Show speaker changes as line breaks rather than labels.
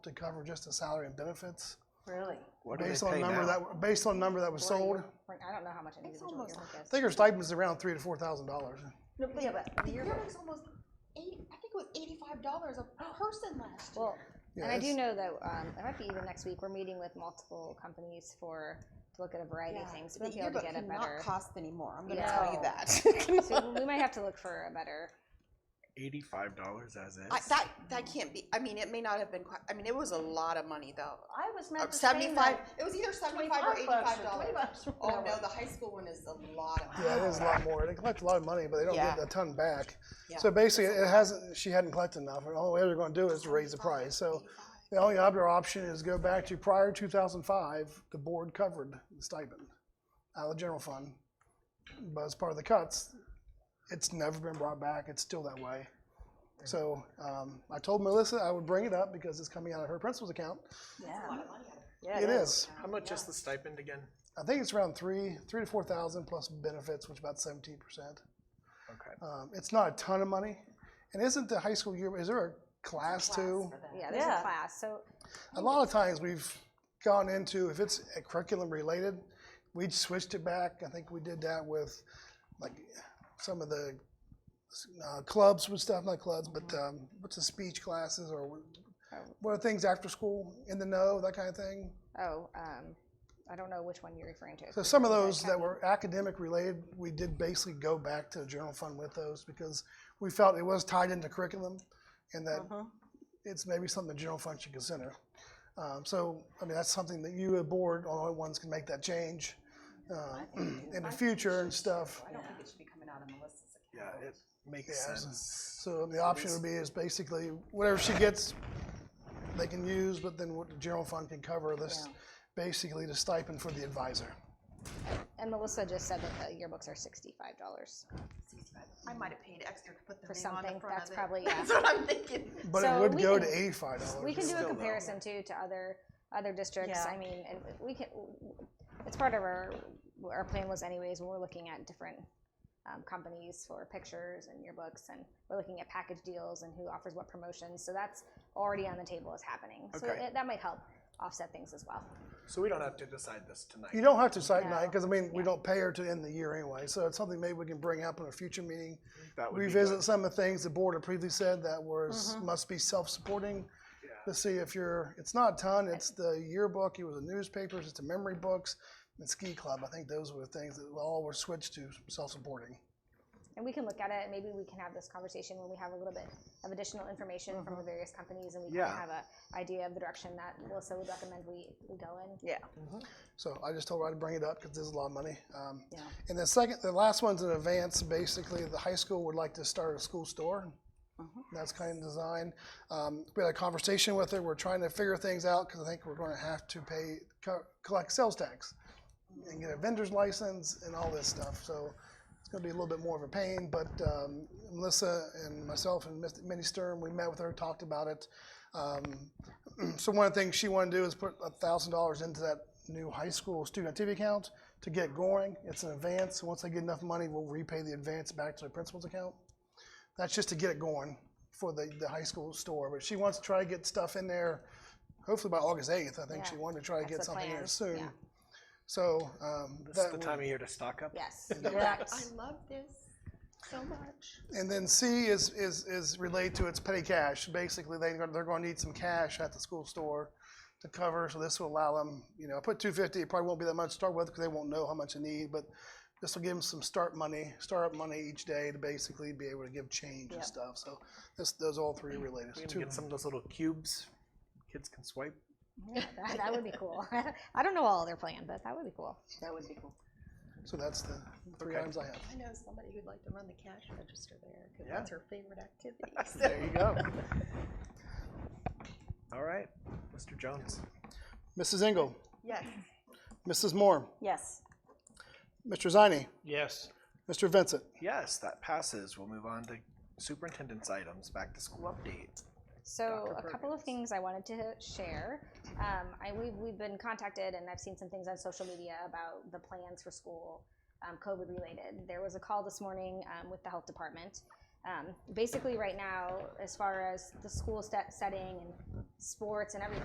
to cover just the salary and benefits.
Really?
What do they
Based on
pay
number
now?
that, based on number that was sold,
Like, I don't know how much an individual yearling
almost-
I
gets.
think her stipend's around three to four thousand dollars.
No, but yeah, but the
The
yearbook.
yearbook's almost eight, I think it was eighty-five dollars a person last year.
Well, and I do
Yes.
know that, um, it might be even next week, we're meeting with multiple companies for, to look at a variety of things. We
The
might be able
yearbook
to get a
cannot
better,
cost anymore. I'm going to tell you
No.
that.
so we might have to look for a better,
Eighty-five dollars as is.
I, that that can't be. I mean, it may not have been. Quite, I mean, it was a lot of money though.
I was
Uh,
meant to say
Seventy-five.
that
It was either seventy-five or
twenty-five bucks
eighty-five
or twenty
dollars.
bucks. or
Oh no,
whatever.
the high school one is a lot of.
Yeah, it
money.
is a lot more. They collect a lot of money, but they don't
Yeah.
get a ton back.
Yeah.
So basically, it hasn't, she hadn't collected enough, and all they're gonna do is raise the price. So the only other option is go back to prior two thousand five, the board covered the stipend out of the general fund. But as part of the cuts, it's never been brought back. It's still that way. So, um, I told Melissa I would bring it up because it's coming out of her principal's account.
yeah.
Yeah,
It is.
How much is the stipend again?
I think it's around three, three to four thousand plus benefits, which is about seventeen percent.
Okay.
Um, it's not a ton of money. And isn't the high school year, is there a class too?
Yeah, there's a
Yeah.
class, so,
A lot of times we've gone into, if it's a curriculum related, we switched it back. I think we did that with like some of the uh, clubs with stuff, not clubs, but um, what's the speech classes or what are things after school, in the know, that kind of thing.
oh, um, I don't know which one you're referring to.
So some of those that were academic related, we did basically go back to the general fund with those because we felt it was tied into curriculum and
Uh-huh.
that it's maybe something the general fund should consider. Um, so, I mean, that's something that you, a board, all the ones can make that change, uh, in the future and stuff.
I don't think it should be coming out of Melissa's account.
Yeah, it makes
Yeah, it's-
sense.
So the option would be is basically whatever she gets, they can use, but then what the general fund can cover this, basically the stipend for the advisor.
And Melissa just said that the yearbooks are sixty-five dollars.
I might have paid extra to put the
For
name on the
something,
front
that's
of it.
probably-
That's what I'm thinking.
But it
So
would
we
go to
can-
eighty-five dollars.
We can do
Still
a
though.
comparison too to other, other districts,
Yeah.
I mean, and we can, it's part of our, our plan was anyways, when we're looking at different um, companies for pictures and yearbooks, and we're looking at package deals and who offers what promotions, so that's already on the table is happening. So
Okay.
it- that might help offset things as well.
So we don't have to decide this tonight.
You don't have to cite nine,
No.
because I mean, we don't pay her to end the year anyway, so it's something maybe we can bring up in a future meeting.
That would be
Revisit
good.
some of the things the board had previously said that was, must be self-supporting. To see if you're, it's not a ton, it's the yearbook, it was the newspapers, it's the memory books, and ski club, I think those were the things that all were switched to self-supporting.
And we can look at it, and maybe we can have this conversation when we have a little bit of additional information from the various companies, and we
Yeah.
can have a idea of the direction that Melissa would recommend we, we go in.
Yeah.
So I just told her I'd bring it up because this is a lot of money. Um,
Yeah.
And the second, the last one's an advance. Basically, the high school would like to start a school store. That's kind of design. Um, we had a conversation with her. We're trying to figure things out because I think we're going to have to pay co- collect sales tax and get a vendor's license and all this stuff. So it's going to be a little bit more of a pain. But um, Melissa and myself and Miss- Minnie Stern, we met with her, talked about it. Um, so one of the things she wanted to do is put a thousand dollars into that new high school student activity account to get going. It's an advance. Once they get enough money, we'll repay the advance back to the principal's account. That's just to get it going for the, the high school store. But she wants to try to get stuff in there, hopefully by August eighth. I think she
Yeah,
wanted to try to get
that's the
something in there
plan,
soon.
yeah.
So um,
This is
that
the
would-
time of year to stock up.
Yes, correct.
I love this so much.
And then C is, is, is related to its petty cash. Basically, they, they're gonna need some cash at the school store to cover, so this will allow them, you know, put two fifty, it probably won't be that much to start with, because they won't know how much they need, but this will give them some start money, startup money each day to basically be able to give change and stuff, so this, those all three are related. It's
We can
two-
get some of those little cubes. Kids can swipe.
That, that would be cool. I don't know all their plan, but that would be cool.
That would be cool.
So that's the three
Okay.
items I have.
I know somebody who'd like to run the cash register there, because
Yeah.
that's her favorite activity.
There you go. All right, Mr. Jones.
Mrs. Engel,
Yes.
Mrs. Moore,
Yes.
Mr. Ziny,
Yes.
Mr. Vincent.
Yes, that passes. We'll move on to superintendent's items, back to school update.
So
Dr.
a couple of
Perkins.
things I wanted to share. Um, I, we've, we've been contacted and I've seen some things on social media about the plans for school, um, COVID related. There was a call this morning, um, with the health department. Um, basically, right now, as far as the school set setting and sports and everything.